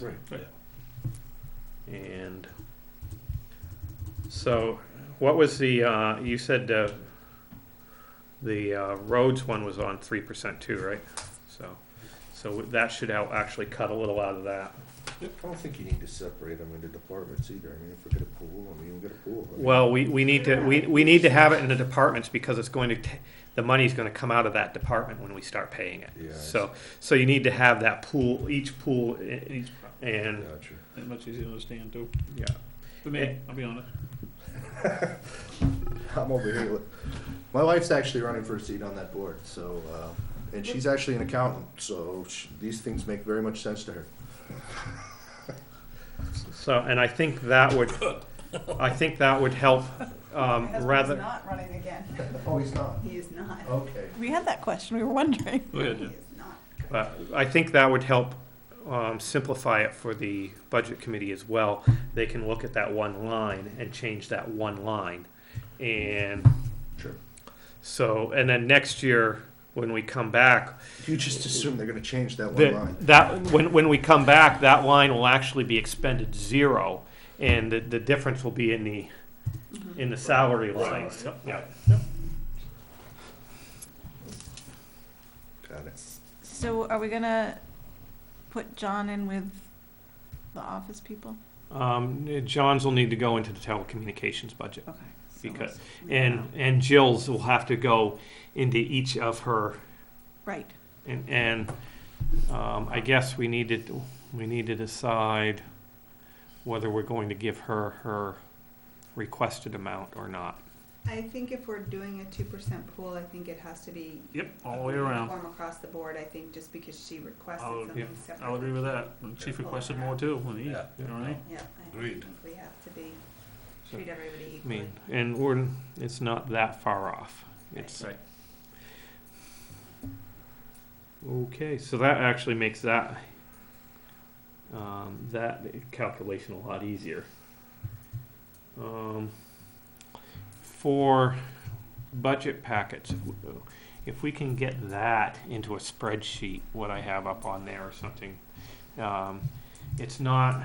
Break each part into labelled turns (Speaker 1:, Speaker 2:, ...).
Speaker 1: Right.
Speaker 2: Right.
Speaker 1: And so what was the, uh, you said, uh, the, uh, roads one was on three percent too, right? So, so that should out, actually cut a little out of that.
Speaker 3: I don't think you need to separate them into departments either. I mean, if we get a pool, I mean, we get a pool. I mean,
Speaker 1: Well, we, we need to, we, we need to have it in the departments because it's going to, t- the money's gonna come out of that department when we start paying
Speaker 3: Yeah, I
Speaker 1: it. So, so you need to have that pool, each pool, i- each, and,
Speaker 3: Gotcha.
Speaker 2: That much easier to understand too,
Speaker 1: yeah.
Speaker 2: for me, I'll be honest.
Speaker 3: I'm over here. with- My wife's actually running for a seat on that board, so, uh, and she's actually an accountant, so sh- these things make very much sense to her.
Speaker 1: So, and I think that would, I think that would help, um,
Speaker 4: My husband's
Speaker 1: rather,
Speaker 4: not running again.
Speaker 3: Oh, he's not?
Speaker 4: He is not.
Speaker 3: Okay.
Speaker 4: We had that question, we were wondering.
Speaker 2: Go ahead,
Speaker 4: He
Speaker 2: yeah.
Speaker 4: is not.
Speaker 1: but I think that would help, um, simplify it for the budget committee as well. They can look at that one line and change that one line. And
Speaker 3: Sure.
Speaker 1: so, and then next year, when we come back,
Speaker 3: You just assume they're gonna change that one
Speaker 1: the,
Speaker 3: line.
Speaker 1: that, when, when we come back, that line will actually be expended zero. And the, the difference will be in the, in the salary lines. Yeah.
Speaker 3: Got it.
Speaker 4: So are we gonna put John in with the office people?
Speaker 1: Um, John's will need to go into the telecommunications budget,
Speaker 4: Okay. so
Speaker 1: Because-
Speaker 4: let's leave it
Speaker 1: and
Speaker 4: out.
Speaker 1: and Jill's will have to go into each of her,
Speaker 4: Right,
Speaker 1: and, and um, I guess we needed we need to decide whether we're going to give her her requested amount or not.
Speaker 5: I think if we're doing a two percent pool, I think it has to be
Speaker 2: Yep, all the way around,
Speaker 5: Form across the board, I think, just because she requested
Speaker 2: I'll-
Speaker 5: something separate.
Speaker 2: I'll agree with that, and chief requested more too, and he, you know what I mean?
Speaker 5: Yeah, I
Speaker 6: Agreed.
Speaker 5: think we have to be,
Speaker 1: So,
Speaker 5: treat everybody
Speaker 1: I
Speaker 5: equally.
Speaker 1: mean, and we're it's not that far off. It's
Speaker 2: Right.
Speaker 1: okay. So that actually makes that um, that calculation a lot easier. Um, for budget packets, if we can get that into a spreadsheet, what I have up on there or something, um, it's not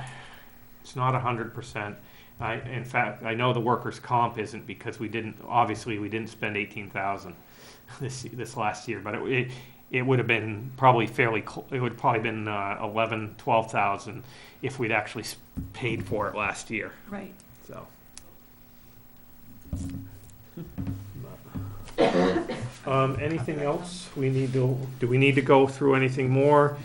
Speaker 1: it's not a hundred percent. I, in fact, I know the workers' comp isn't because we didn't, obviously, we didn't spend eighteen thousand this, this last year, but it, it, it would have been probably fairly, cl- it would probably been, uh, eleven, twelve thousand if we'd actually s- paid for it last year,
Speaker 4: right.
Speaker 1: so. Um, anything else we need to, do we need to go through anything more?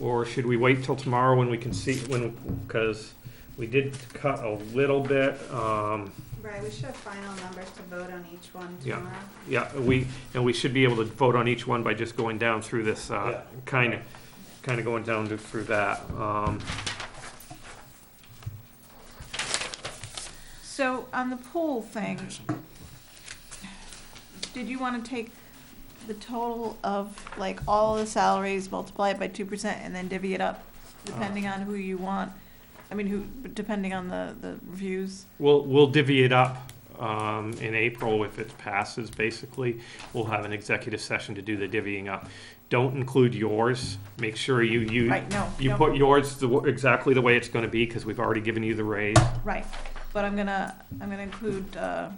Speaker 1: Or should we wait till tomorrow when we can see, when, because we did cut a little bit, um,
Speaker 5: Right, we should have final numbers to vote on each one
Speaker 1: Yeah.
Speaker 5: tomorrow.
Speaker 1: yeah, we, and we should be able to vote on each one by just going down through this, uh, kind of, kind of going down to- through that. Um,
Speaker 4: So on the pool thing, did you wanna take the total of like all the salaries, multiply it by two percent and then divvy it up?
Speaker 1: Uh-huh.
Speaker 4: Depending on who you want, I mean, who, depending on the, the reviews?
Speaker 1: We'll, we'll divvy it up, um, in April if it passes, basically. We'll have an executive session to do the divvying up. Don't include yours. Make sure you, you,
Speaker 4: Right, no.
Speaker 1: you
Speaker 4: no.
Speaker 1: put yours the, w- exactly the way it's gonna be, because we've already given you the raise.
Speaker 4: Right, but I'm gonna, I'm gonna include uh,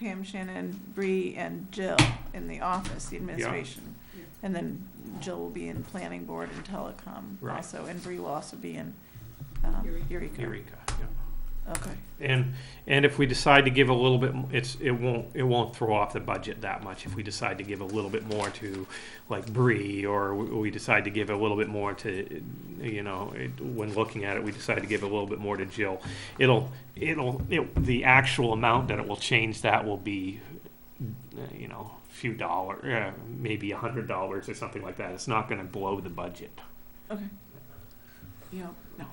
Speaker 4: Pam, Shannon, Bree, and Jill in the office, the administration. And then Jill will be in planning board and telecom
Speaker 1: Right.
Speaker 4: also, and Bree will also be in um,
Speaker 5: Eureka.
Speaker 4: Eureka.
Speaker 1: Eureka, yeah.
Speaker 4: Okay,
Speaker 1: And, and if we decide to give a little bit, m- it's, it won't, it won't throw off the budget that much if we decide to give a little bit more to like Bree, or w- we decide to give a little bit more to, you know, it- when looking at it, we decide to give a little bit more to Jill. It'll, it'll, it, the actual amount that it will change that will be, uh, you know, few dollar, uh, maybe a hundred dollars or something like that. It's not gonna blow the budget.
Speaker 4: okay. Yeah, no,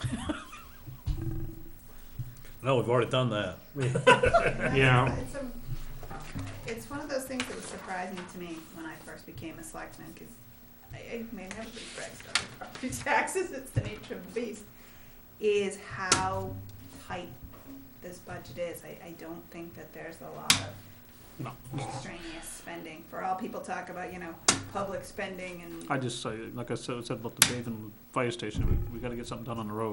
Speaker 6: No, we've already done that.
Speaker 5: And
Speaker 1: Yeah.
Speaker 5: that's- It's a- it's one of those things that was surprising to me when I first became a selectman, cause I, I mean, everybody brags about their property taxes, it's the nature of the beast, is how tight this budget is. I, I don't think that there's a lot of
Speaker 2: No.
Speaker 4: extraneous spending. For all people talk about, you know, public spending and
Speaker 2: I just say, like I said, said about the Bathan fire station, we- we gotta get something done on the road.